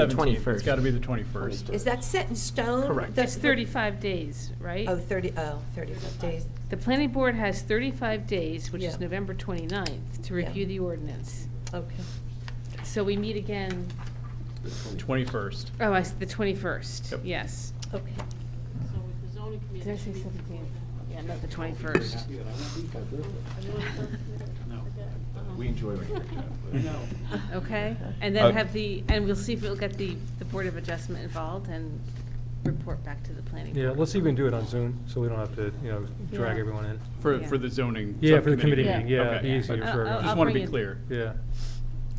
17th, it's 21st. got to be the 21st. Is that set in stone? Correct. The- That's That's 35 days, right? Oh, 30, oh, 35 days. The planning board has 35 days, which Yeah. is November 29th, to Yeah. review the ordinance. Okay. So we meet again, 21st. oh, I s- the 21st, Yep. yes. Okay. So with the zoning Did committee. I say 17th? Yeah, not the 21st. We enjoy it. Okay, and Uh, then have the, and we'll see if we'll get the, the Board of Adjustment involved and report back to the planning board. Yeah, let's even do it on Zoom, so we don't have to, you know, drag Yeah. everyone in. For, Yeah. for the zoning. Yeah, for the committee Yeah. meeting, yeah, it'd Okay. be easier I'll- for I'll- Just I'll everyone. want to bring be it. clear. Yeah.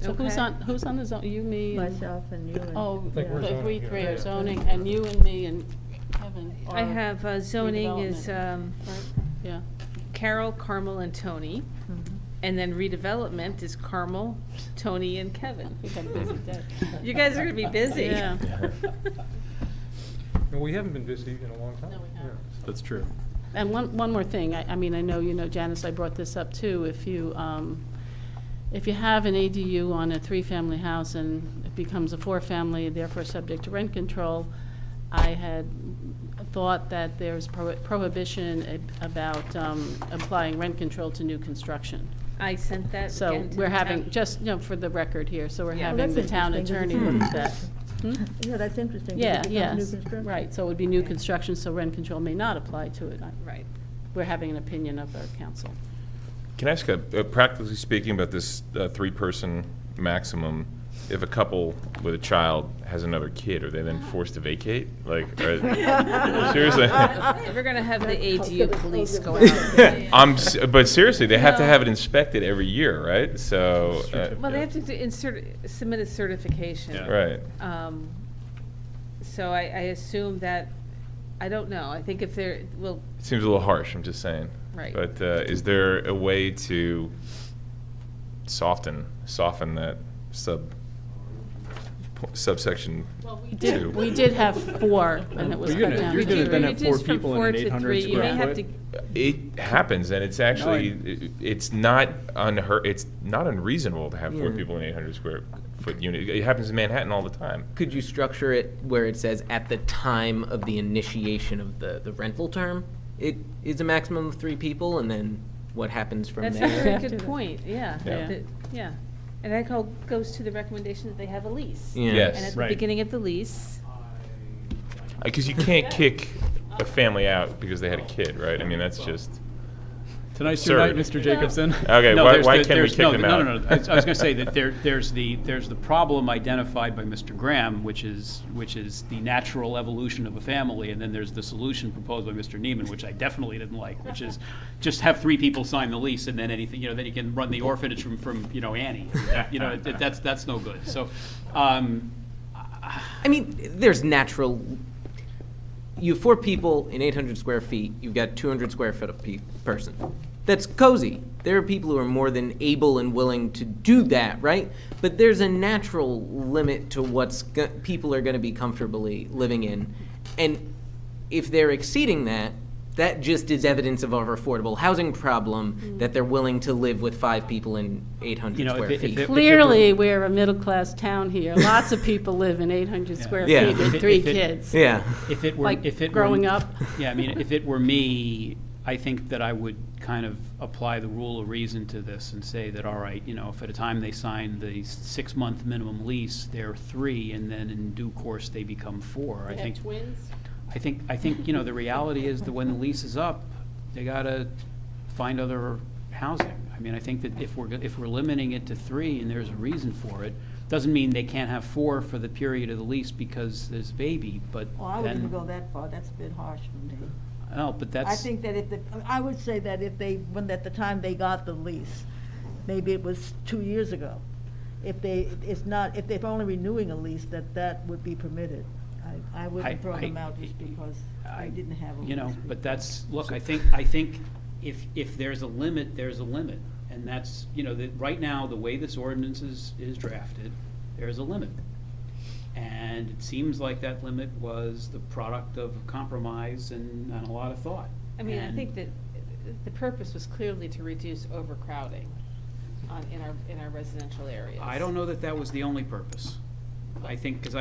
So who's Okay. on, who's on the zone, you, me? and- Myself and you and. Oh, think we're the zoning we here, three yeah. are zoning, and you and me and Kevin I are have uh, zoning is redevelopment, um, right? Yeah, Carol, Carmel, and Tony. Mm-hmm. And then redevelopment is Carmel, Tony, and Kevin. we got a busy day. You guys are gonna be busy. Yeah. And we haven't been busy in a long time. No, we Yeah. haven't. That's true. And one, one more thing, I, I mean, I know, you know, Janice, I brought this up too, if you, um, if you have an ADU on a three-family house and it becomes a four-family, therefore subject to rent control, I had thought that there's prohi- prohibition ab- about, um, applying rent control to new construction. I sent that So again to we're the having, town. just, you know, for the record here, so we're Yeah. having the Well, that's town attorney interesting, look at because that. it's Hmm? Yeah, that's interesting. 'cause it Yeah, becomes yes, new construction. right, so it would be new construction, so rent control may not apply to it. I- Right. We're having an opinion of our council. Can I ask, a- uh, practically speaking, about this uh, three-person maximum? If a couple with a child has another kid, are they then forced to vacate? Like, are- seriously? We're gonna have the ADU police go out. I'm, s- but seriously, they have to have it inspected every year, right? So, uh, Well, they have to do- insert, submit a certification. Yeah. right. Um, So I, I assume that, I don't know, I think if they're, well, Seems a little harsh, I'm just saying. Right. But uh, is there a way to soften, soften that sub, po- subsection? Well, we Two. did, we did have four, and it was Well, you're cut gonna- down. you're to gonna three. then have four reduce from people in four an to 800 three, you may square have foot. to- It happens, and it's actually, it's not unheard, it's not unreasonable to have four people in an 800 square foot unit. It happens in Manhattan all the time. Could you structure it where it says at the time of the initiation of the, the rental term? It is a maximum of three people, and then what happens from That's a very there? good point, yeah. Yeah. that- Yeah, and that all goes to the recommendation that they have a lease. Yeah. And at Yes, the Right. beginning of the lease, because you can't kick a family out because they had a kid, right? I mean, that's just, Tonight's your night, Absurd. Mr. Jacobson. Okay, No, why- there's why the- can't we there's- kick no, them no, out? No, no, no. I was going to say that there, there's the, there's the problem identified by Mr. Graham, which is, which is the natural evolution of a family, and then there's the solution proposed by Mr. Neiman, which I definitely didn't like, which is just have three people sign the lease, and then anything, you know, then you can run the orphanage from, from, you know, Annie. You know, that- that's, that's no good. So, um, I mean, there's natural. You have four people in 800 square feet. You've got 200 square foot of pe- person. That's cozy. There are people who are more than able and willing to do that, right? But there's a natural limit to what's go- people are going to be comfortably living in, and if they're exceeding that, that just is evidence of our affordable housing problem that they're willing to live with five people in 800 You know, if square it- if feet. it- Clearly, we're a middle-class town here. Lots of people live in 800 square Yeah. feet If with it- three if it- kids. yeah. If it were, Like, if it were. growing up. Yeah, I mean, if it were me, I think that I would kind of apply the rule of reason to this and say that, all right, you know, if at a time they sign the six-month minimum lease, they're three, and then in due course, they become four. I They think, have twins? I think, I think, you know, the reality is that when the lease is up, they gotta find other housing. I mean, I think that if we're, go- if we're limiting it to three and there's a reason for it, doesn't mean they can't have four for the period of the lease because there's a baby, but Well, I wouldn't then- even go that far, that's a bit harsh for me. no, but that's. I think that if, the I would say that if they, when, at the time they got the lease, maybe it was two years ago. If they, it's not, if they're only renewing a lease, that that would be permitted. I, I I- wouldn't throw them I- out just because I- they didn't have a lease. You know, but that's, look, I think, I think if, if there's a limit, there's a limit. And that's, you know, that, right now, the way this ordinance is, is drafted, there's a limit. And it seems like that limit was the product of compromise and, and a lot of thought. I mean, I And- think that uh, the purpose was clearly to reduce overcrowding on, in our, in our residential areas. I don't know that that was the only purpose. I think, because